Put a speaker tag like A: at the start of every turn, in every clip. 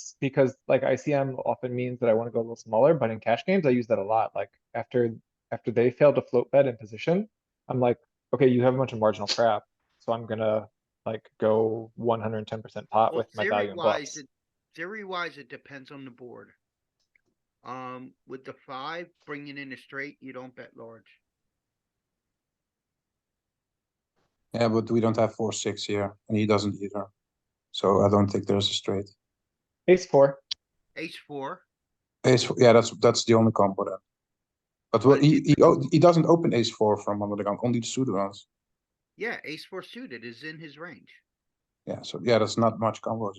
A: it's because like ICM often means that I wanna go a little smaller, but in cash games, I use that a lot, like after, after they fail to float bet in position. I'm like, okay, you have a bunch of marginal crap, so I'm gonna like go one hundred and ten percent pot
B: Well,
A: with my value
B: Theory
A: and
B: wise,
A: bluffs.
B: it, theory wise, it depends on the board. Um, with the five, bringing in a straight, you don't bet large.
C: Yeah, but we don't have four, six here, and he doesn't either. So I don't think there's a straight.
A: Ace four,
B: Ace four,
C: Ace, f- yeah, that's, that's the only combo then. But well, he, he, o- he doesn't open ace four from under the gun, only the suited ones.
B: yeah, ace four suited is in his range,
C: Yeah, so yeah, that's not much combos.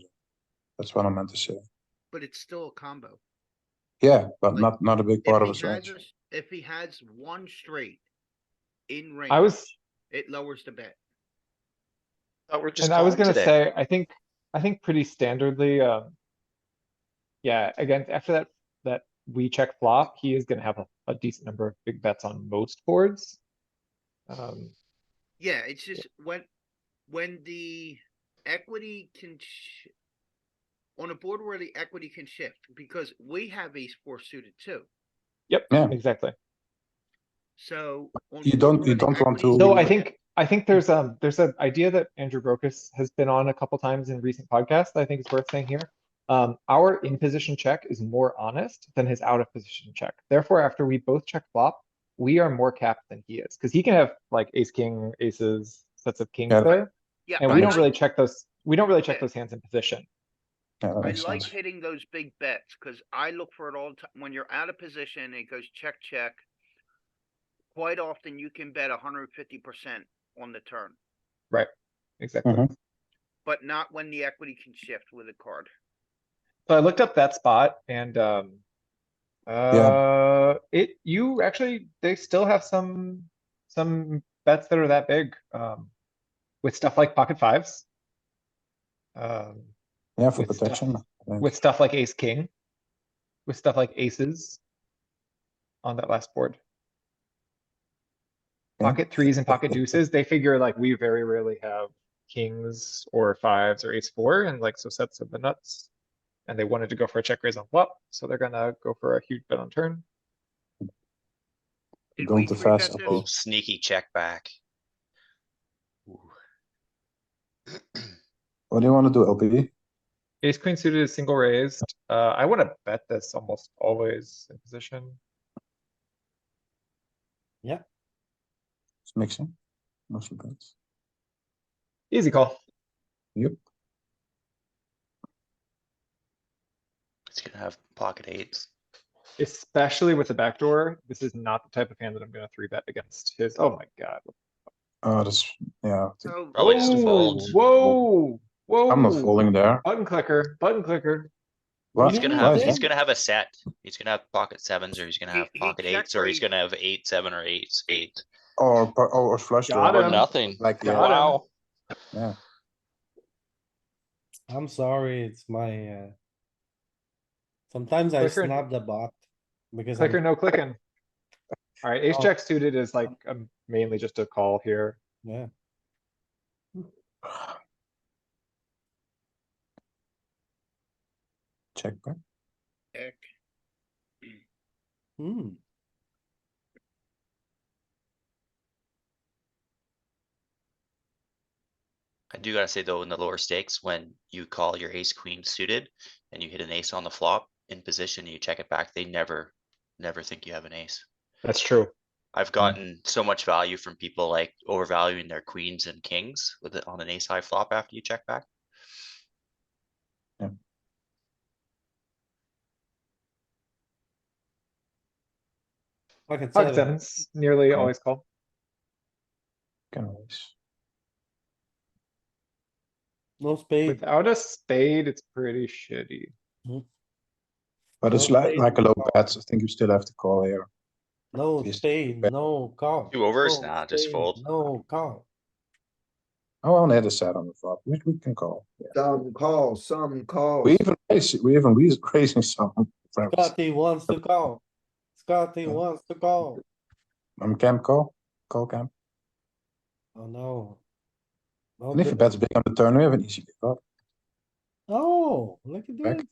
C: That's what I meant to say.
B: but it's still a combo.
C: Yeah, but
B: Like,
C: not, not a big part of
B: If
C: his
B: he has,
C: range.
B: a s- if he has one straight in range.
A: I was,
B: It lowers the bet.
D: Thought we're just
A: and I was
D: calling
A: gonna
D: today.
A: say, I think, I think pretty standardly, um. Yeah, again, after that, that we check flop, he is gonna have a, a decent number of big bets on most boards. Um,
B: Yeah, it's just when, when the equity can sh- on a board where the equity can shift, because we have ace four suited too,
A: yep,
C: Yeah.
A: exactly.
B: so. on
C: You
B: boards
C: don't-
B: where
C: you
B: the
C: don't want
B: equity-
C: to-
A: So I think, I think there's, um, there's an idea that Andrew Brokus has been on a couple times in recent podcasts, that I think is worth saying here. Um, our in position check is more honest than his out of position check. Therefore, after we both check flop, we are more capped than he is, cuz he can have like ace, king, aces, sets of kings
C: Yeah.
A: there.
B: Yeah,
A: And
B: I
A: we don't
B: like-
A: really check those, we don't really check
B: Okay.
A: those hands in position.
C: Yeah, that
B: I
C: makes
B: like
C: sense.
B: hitting those big bets, cause I look for it all the time, when you're out of position, it goes check, check. Quite often you can bet hundred and fifty percent on the turn,
A: Exactly.
C: Mhm.
B: but not when the equity can shift with a card.
A: So I looked up that spot and, um, uh, it, you actually, they still have some, some bets that are that big, um, with stuff like pocket fives. Um,
C: Yeah, for
A: with stuff-
C: protection. I think.
A: with stuff like ace, king, with stuff like aces on that last board.
C: Yeah.
A: Pocket threes and pocket deuces, they figure like we very rarely have kings or fives or ace four and like so sets of the nuts. And they wanted to go for a check raise on flop, so they're gonna go for a huge bet on turn.
B: Did
C: Going
B: we
C: too
B: three
C: fast,
B: bet this?
C: I think.
D: Oh, sneaky check back. Ooh.
C: What do you wanna do, LPV?
A: Ace queen suited is single raised. Uh, I wanna bet this almost always in position.
C: It's mixing. Mostly bets.
A: Easy call.
C: Yep.
D: It's gonna have pocket eights.
A: Especially with the backdoor, this is not the type of hand that I'm gonna three bet against his, oh my god.
C: Oh, that's, yeah. I think-
B: So,
D: Probably just
A: Oh,
D: folds.
A: Whoa, whoa.
C: I'm not folding there.
A: Button clicker, button clicker.
C: What?
D: He's gonna
C: Why
D: have,
C: is
D: he's
C: that?
D: gonna have a set. He's gonna have pocket sevens or he's gonna
B: He-
D: have
B: he
D: pocket eights or he's
B: check-raised.
D: gonna have eight, seven or eights, eight.
C: Or, or, or flush
A: Got
C: draw.
A: him.
D: Or nothing.
C: Like,
A: Got
C: yeah.
A: him.
D: Wow.
C: Yeah,
E: I'm sorry, it's my, uh. Sometimes I
A: Clicker-
E: snap the bot because
A: Clicker,
E: I'm,
A: no clicking. Alright, ace
E: Oh.
A: jack suited is like um, mainly just a call here.
E: yeah,
C: check back.
B: heck,
E: hmm,
D: I do gotta say though, in the lower stakes, when you call your ace queen suited and you hit an ace on the flop in position, you check it back, they never, never think you have an ace.
A: That's true.
D: I've gotten so much value from people like overvaluing their queens and kings with it on an ace high flop after you check back.
E: pocket
A: Pocket
E: seven,
A: sevens, nearly
C: Okay.
A: always call.
C: Can raise.
E: no spade,
A: Without a spade, it's pretty shitty.
C: But it's
E: No
C: like,
E: spade,
C: like a low
E: call.
C: bet, I think you still have to call here.
E: no
C: Yes.
E: spade, no call.
D: Two overs?
E: no
D: Nah, just
E: spade,
D: fold.
E: No call,
C: Oh, on the other side on the flop, we, we can call. yeah.
F: Some call, some call.
C: We even raise, we even raise, raising some. friends.
E: Scotty wants to call, Scotty
C: Yeah.
E: wants to call,
C: I'm camp call, call camp.
E: oh no.
C: And if you
E: Okay,
C: bet big on the turn, we have an easy give up.
E: oh, look at
C: Back.
E: this,